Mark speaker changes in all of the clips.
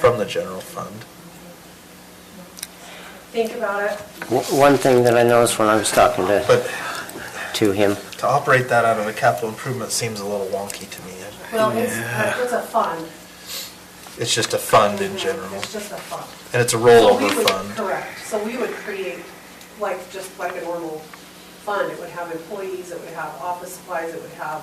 Speaker 1: from the general fund.
Speaker 2: Think about it.
Speaker 3: W- One thing that I noticed when I was talking to,
Speaker 1: But
Speaker 3: to him,
Speaker 1: to operate that out of a capital improvement seems a little wonky to me.
Speaker 2: Well, it's, uh, it's a fund.
Speaker 1: It's just a fund in general,
Speaker 2: It's just a fund.
Speaker 1: and it's a
Speaker 2: So we
Speaker 1: rollover
Speaker 2: would-
Speaker 1: fund.
Speaker 2: Correct. So we would create, like, just like a normal fund. It would have employees, it would have office supplies, it would have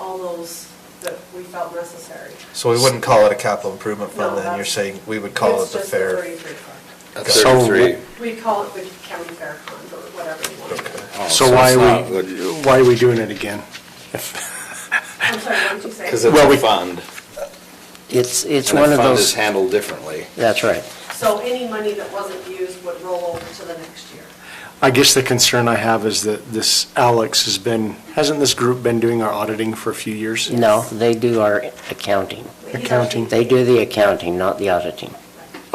Speaker 2: all those that we felt necessary.
Speaker 1: So we wouldn't call it a capital improvement
Speaker 2: No,
Speaker 1: fund, then you're
Speaker 2: that's-
Speaker 1: saying we would call it
Speaker 2: It's
Speaker 1: the
Speaker 2: just a
Speaker 1: fair.
Speaker 2: 33 fund.
Speaker 4: That's
Speaker 3: So-
Speaker 4: 33.
Speaker 2: We call it the county fair fund or whatever you want. to
Speaker 1: Okay.
Speaker 2: do.
Speaker 4: Oh,
Speaker 5: So why
Speaker 4: it's
Speaker 5: are
Speaker 4: not-
Speaker 5: we, why are we doing it again?
Speaker 2: I'm sorry, what did you say?
Speaker 4: Because it's
Speaker 5: Well,
Speaker 4: a
Speaker 5: we-
Speaker 4: fund.
Speaker 3: it's, it's
Speaker 4: and a
Speaker 3: one of
Speaker 4: fund is
Speaker 3: those,
Speaker 4: handled differently.
Speaker 3: that's right.
Speaker 2: So any money that wasn't used would roll over to the next year.
Speaker 5: I guess the concern I have is that this Alex has been, hasn't this group been doing our auditing for a few years?
Speaker 3: No, they do our accounting.
Speaker 5: Accounting.
Speaker 3: They do the accounting, not the auditing.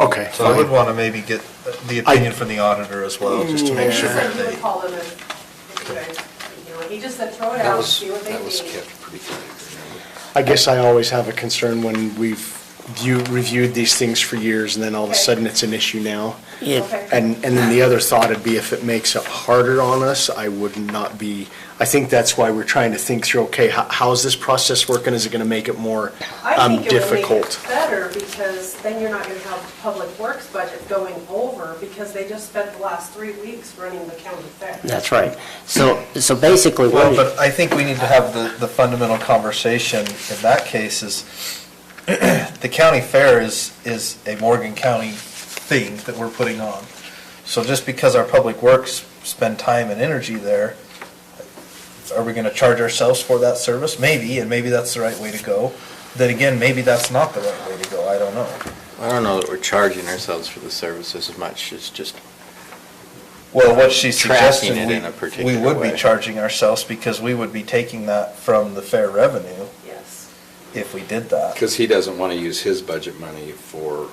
Speaker 5: Okay,
Speaker 1: So I would
Speaker 5: fine.
Speaker 1: want to maybe get the opinion from the auditor as well, just to
Speaker 2: And
Speaker 1: make
Speaker 2: he
Speaker 1: sure
Speaker 2: said
Speaker 1: that
Speaker 2: he would
Speaker 1: they.
Speaker 2: call them if, if you guys, you know, he just said, throw it
Speaker 4: That
Speaker 2: out,
Speaker 4: was,
Speaker 2: see what they
Speaker 4: that was
Speaker 2: think.
Speaker 4: kept pretty clean.
Speaker 5: I guess I always have a concern when we've view, reviewed these things for years and then all of a
Speaker 2: Okay.
Speaker 5: sudden it's an issue now.
Speaker 3: It-
Speaker 2: Okay.
Speaker 5: And, and then the other thought would be if it makes it harder on us, I would not be, I think that's why we're trying to think through, okay, how, how is this process working? Is it gonna make it more
Speaker 2: I
Speaker 5: um,
Speaker 2: think it would make
Speaker 5: difficult?
Speaker 2: it better because then you're not gonna have public works budget going over because they just spent the last three weeks running the county fair.
Speaker 3: That's right. So, so basically,
Speaker 1: Well,
Speaker 3: what,
Speaker 1: but I think we need to have the, the fundamental conversation in that case is, the county fair is, is a Morgan County thing that we're putting on. So just because our public works spend time and energy there, are we gonna charge ourselves for that service? Maybe, and maybe that's the right way to go. Then again, maybe that's not the right way to go, I don't know.
Speaker 4: I don't know that we're charging ourselves for the services as much as just,
Speaker 1: Well, what she's
Speaker 4: Tracking
Speaker 1: suggesting,
Speaker 4: it in
Speaker 1: we,
Speaker 4: a
Speaker 1: we
Speaker 4: particular
Speaker 1: would be
Speaker 4: way.
Speaker 1: charging ourselves because we would be taking that from the fair revenue
Speaker 2: Yes.
Speaker 1: if we did that.
Speaker 4: because he doesn't want to use his budget money for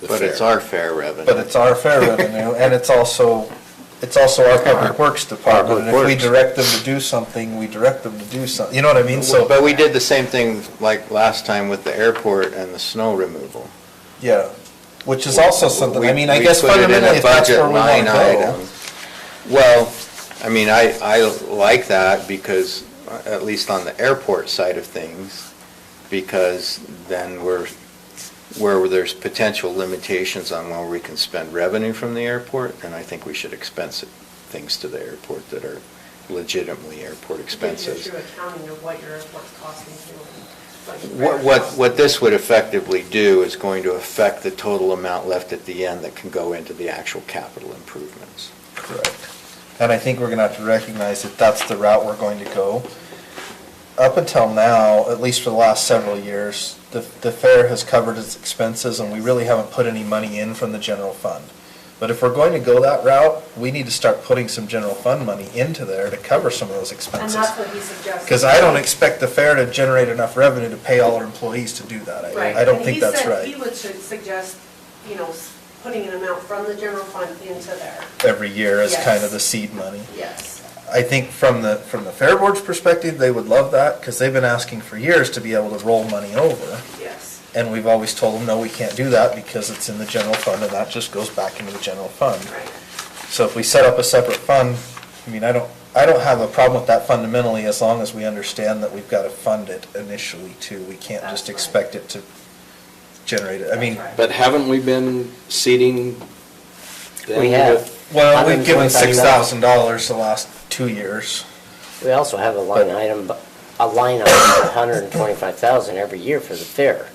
Speaker 4: the fair.
Speaker 6: But it's our fair revenue.
Speaker 1: But it's our fair revenue, and it's also, it's also our public works department. And if we
Speaker 6: Public Works.
Speaker 1: direct them to do something, we direct them to do something, you know what I mean? So,
Speaker 6: But we did the same thing like last time with the airport and the snow removal.
Speaker 1: yeah, which is also something, I
Speaker 6: We-
Speaker 1: mean, I
Speaker 6: we
Speaker 1: guess
Speaker 6: put it in
Speaker 1: fundamentally,
Speaker 6: a
Speaker 1: if that's
Speaker 6: budget
Speaker 1: where we want to
Speaker 6: line
Speaker 1: go.
Speaker 6: item. Well, I mean, I, I like that because, uh, at least on the airport side of things, because then we're, where there's potential limitations on where we can spend revenue from the airport, and I think we should expense it, things to the airport that are legitimately airport
Speaker 2: Give
Speaker 6: expenses.
Speaker 2: you true accounting of what your airport's costing to. like your
Speaker 6: What, what,
Speaker 2: fair
Speaker 6: what this would effectively do is going to affect the total amount left at the end that can go into the actual capital improvements.
Speaker 1: Correct. And I think we're gonna have to recognize that that's the route we're going to go. Up until now, at least for the last several years, the, the fair has covered its expenses and we really haven't put any money in from the general fund. But if we're going to go that route, we need to start putting some general fund money into there to cover some of those
Speaker 2: And
Speaker 1: expenses.
Speaker 2: that's what he suggested.
Speaker 1: Because I don't expect the fair to generate enough revenue to pay all our employees to do that.
Speaker 2: Right.
Speaker 1: I, I don't
Speaker 2: And
Speaker 1: think
Speaker 2: he
Speaker 1: that's
Speaker 2: said He
Speaker 1: right,
Speaker 2: would should suggest, you know, s- putting an amount from the general fund into there.
Speaker 1: every year as
Speaker 2: Yes.
Speaker 1: kind of the seed money.
Speaker 2: Yes.
Speaker 1: I think from the, from the Fair Board's perspective, they would love that, because they've been asking for years to be able to roll money over.
Speaker 2: Yes.
Speaker 1: And we've always told them, no, we can't do that, because it's in the general fund, and that just goes back into the general fund.
Speaker 2: Right.
Speaker 1: So if we set up a separate fund, I mean, I don't, I don't have a problem with that fundamentally, as long as we understand that we've got to fund it initially too. We can't
Speaker 2: That's
Speaker 1: just
Speaker 2: right.
Speaker 1: expect it to generate it. I mean,
Speaker 2: That's right.
Speaker 4: But haven't we been seeding? them
Speaker 3: We have.
Speaker 4: with-
Speaker 1: well, we've given six thousand
Speaker 3: $125,000.
Speaker 1: dollars the last two years.
Speaker 3: we also have a line item, but- a line item of 125,000 every year for the fair.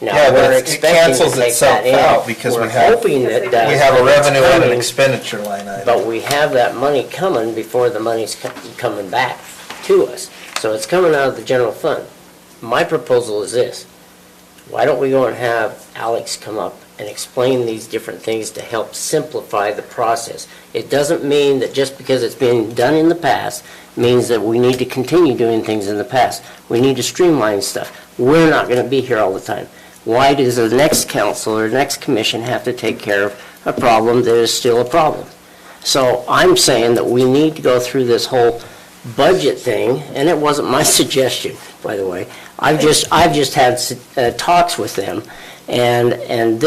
Speaker 1: Yeah,
Speaker 3: Now,
Speaker 1: but
Speaker 3: we're
Speaker 1: it
Speaker 3: expecting to
Speaker 1: cancels
Speaker 3: take
Speaker 1: itself
Speaker 3: that
Speaker 1: out
Speaker 3: in.
Speaker 1: because we
Speaker 3: We're
Speaker 1: have-
Speaker 3: hoping uh, it does.
Speaker 1: We have a
Speaker 3: but it's
Speaker 1: revenue and an
Speaker 3: coming,
Speaker 1: expenditure line item.
Speaker 3: But we have that money coming before the money's co- coming back to us. So it's coming out of the general fund. My proposal is this. Why don't we go and have Alex come up and explain these different things to help simplify the process? It doesn't mean that just because it's been done in the past means that we need to continue doing things in the past. We need to streamline stuff. We're not going to be here all the time. Why does the next council or the next commission have to take care of a problem that is still a problem? So I'm saying that we need to go through this whole budget thing, and it wasn't my suggestion, by the way. I've just, I've just had s- uh, talks with them And, and